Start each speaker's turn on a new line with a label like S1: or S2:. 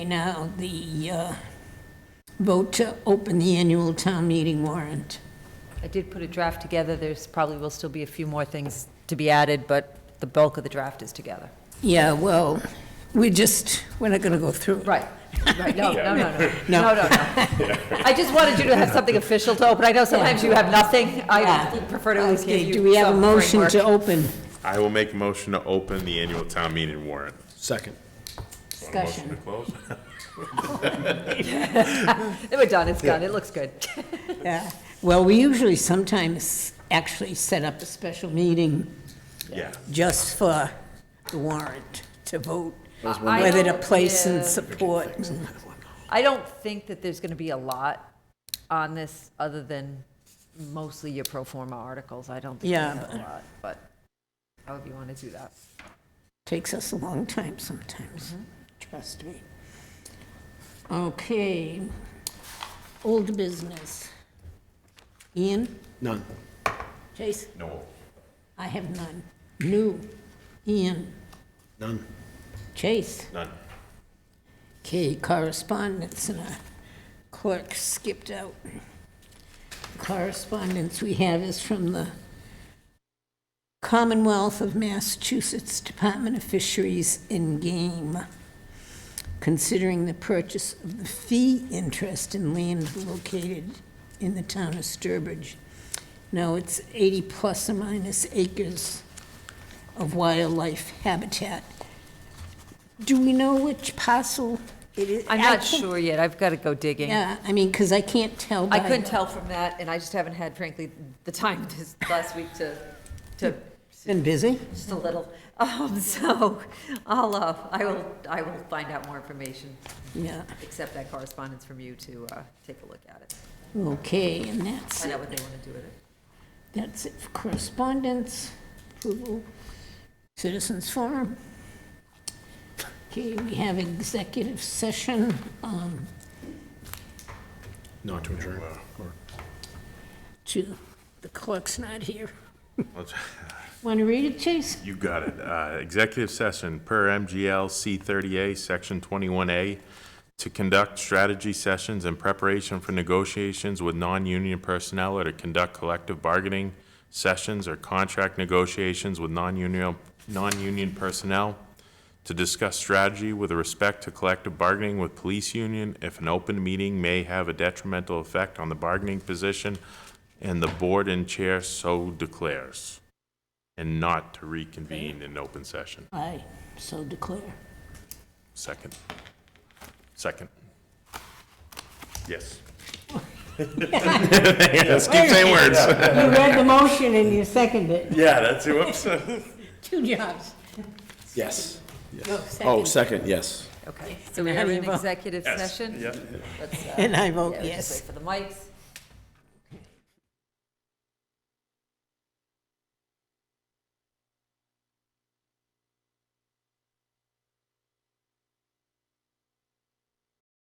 S1: Now, the uh, vote to open the annual town meeting warrant.
S2: I did put a draft together, there's probably will still be a few more things to be added, but the bulk of the draft is together.
S1: Yeah, well, we just, we're not going to go through it.
S2: Right, right, no, no, no,
S1: No.
S2: no, no, no, no. I just wanted you to have something official to open, I know sometimes you have nothing, I
S1: Yeah.
S2: prefer to at least give
S1: Okay,
S2: you
S1: do we have a
S2: some
S1: motion to
S2: framework.
S1: open
S3: I will make a motion to open the annual town meeting warrant.
S4: Second.
S3: Motion to
S1: discussion?
S3: close?
S2: We're done, it's done, it looks good.
S1: Yeah. Well, we usually sometimes actually set up a special meeting
S3: Yeah.
S1: just for the warrant to vote,
S2: I
S1: whether to
S2: don't-
S1: place and
S2: yeah.
S1: support.
S2: I don't think that there's gonna be a lot on this, other than mostly your pro forma articles, I don't think we
S1: Yeah,
S2: have a
S1: but-
S2: lot, but however you wanna do that.
S1: Takes us a long time sometimes, trust me. Okay, old business. Ian,
S4: None.
S1: Jason,
S3: No.
S1: I have none. New, Ian,
S4: None.
S1: Chase.
S3: None.
S1: Okay, correspondence, and our clerk skipped out. Correspondence we have is from the Commonwealth of Massachusetts Department of Fisheries and Game, considering the purchase of the fee interest in land located in the town of Sturbridge. Now, it's 80 plus or minus acres of wildlife habitat. Do we know which parcel it is?
S2: I'm not
S1: I think-
S2: sure yet, I've gotta go digging.
S1: Yeah, I mean, because I can't tell by.
S2: I couldn't tell from that, and I just haven't had, frankly, the time
S1: Hmm.
S2: this last week to, to,
S1: Been busy?
S2: just a little. Um, so I'll, uh, I will, I will find out more information,
S1: Yeah,
S2: accept that correspondence from you to, uh, take a look at it,
S1: okay, and that's,
S2: find out what they want to do with it.
S1: that's it for correspondence, approval, citizens forum. Okay, we have executive session, um,
S4: Not to adjourn. Or-
S1: to, the clerk's not here.
S3: Let's-
S1: Want to read it, Chase?
S3: You got it. Uh, Executive session per MGL C thirty A, section twenty-one A, to conduct strategy sessions in preparation for negotiations with non-union personnel or to conduct collective bargaining sessions or contract negotiations with non-union, non-union personnel, to discuss strategy with respect to collective bargaining with police union if an open meeting may have a detrimental effect on the bargaining position and the board and chair so declares and not to reconvene in open session.
S1: I so declare.
S3: Second. Second. Yes. Let's keep saying words.
S1: You read the motion and you seconded it.
S3: Yeah, that's, whoops.
S1: Two jobs.
S4: Yes.
S1: No,
S4: Oh,
S1: second.
S4: second, yes.
S2: Okay, so we are
S1: How do you
S2: in
S1: vote?
S2: executive session? Let's, uh,
S1: And I vote
S2: yeah, just
S1: yes.
S2: wait for the mics.